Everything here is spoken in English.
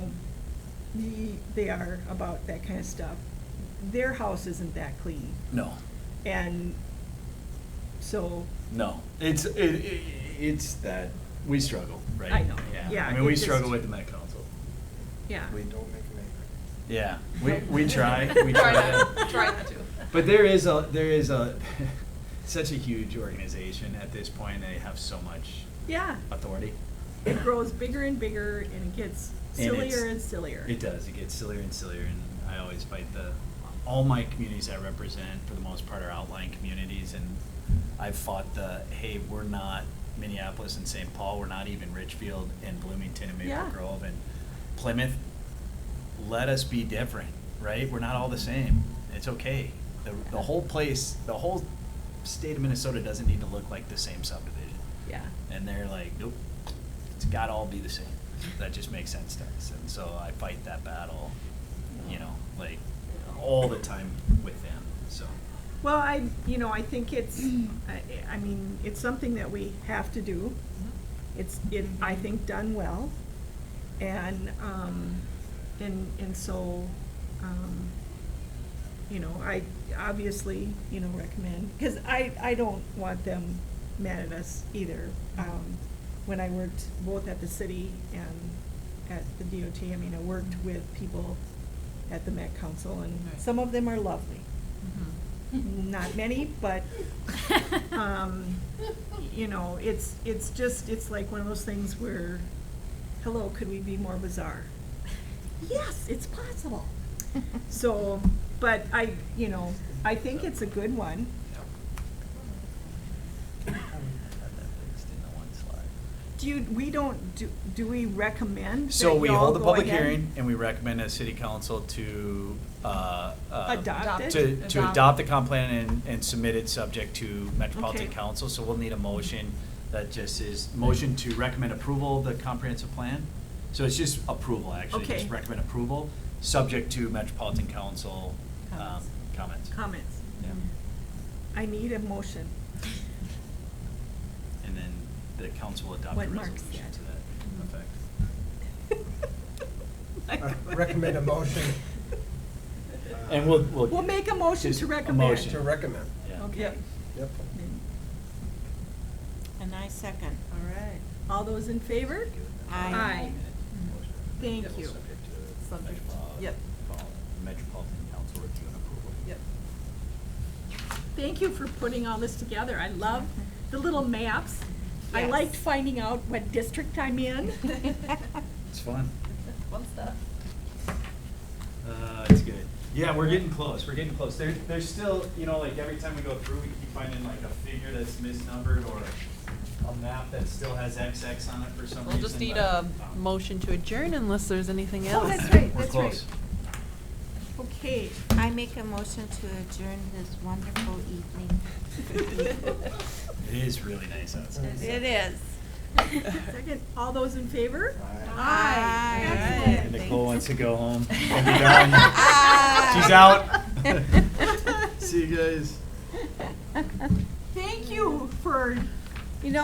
they are about that kind of stuff, their house isn't that clean. No, And so, no. It's, it, it- it's that, we struggle, right? I know. Yeah, I mean, we it just- struggle with the Met Council. yeah. We don't make them Yeah, we, we try, we Try try not- to. try not to. But there is a, there is a, such a huge organization at this point, they have so much Yeah, authority. it grows bigger and bigger and it gets it's- sillier and sillier. It does, it gets sillier and sillier, and I always fight the, all my communities I represent, for the most part, are outlying communities, and I've fought the, hey, we're not Minneapolis and St. Paul, we're not even Richfield and Bloomington and Maple Yeah. Grove and Plymouth. Let us be different, right? We're not all the same, it's okay. The, the whole place, the whole state of Minnesota doesn't need to look like the same subdivision. Yeah. And they're like, nope, it's gotta all be the same. That just makes sense to us. And so I fight that battle, you know, like all the time with them, so. Well, I, you know, I think it's, I, I mean, it's something that we have to do. It's, it, I think, done well. And, um, and, and so, um, you know, I obviously, you know, recommend, because I, I don't want them mad at us either. Um, when I worked both at the city and at the DOT, I mean, I worked with people at the Met Council, and Right. some of them are lovely. Not many, but, um, you know, it's, it's just, it's like one of those things where, hello, could we be more bizarre? Yes, it's possible. So, but I, you know, I think it's a good one. Do you, we don't, do, do we recommend So that we y'all hold a go public ahead? hearing and we recommend a city council to, uh, uh, Adopt it? To, to Adopt. adopt the comp plan and, and submit it subject to Metropolitan Okay. Council, so we'll need a motion that just is, motion to recommend approval of the comprehensive plan. So it's just approval, actually, Okay. just recommend approval, subject to Metropolitan Council, um, Comments. comments. Comments. Yeah, I need a motion. and then the council will adopt a What Mark resolution said. Mm-hmm. to that effect. Uh, recommend a motion. And we'll, we'll. We'll make a motion Just to a recommend. either. motion. To recommend. Oh, Yeah. Okay. Yep. And I second. All right. All those in favor? Aye. Aye. Thank you. Subject to Subject, metropol- yep. Metropolitan Council review and approval. Yep. Thank you for putting all this together. I love the little maps. I Yes. liked finding out what district I'm in. It's fun. Fun stuff. Uh, it's good. Yeah, we're getting close, we're getting close. There, there's still, you know, like every time we go through, we keep finding like a figure that's misnumbered or a map that still has XX on it for some reason. We'll just need but, a um, motion to adjourn unless there's anything Oh, else. that's right, We're that's right. close. Okay. I make a motion to adjourn this wonderful evening. It is really nice outside. It is. Second, all those in favor? Aye. Excellent. Nicole wants to go home and be done. She's Aye. out. See you guys. Thank you for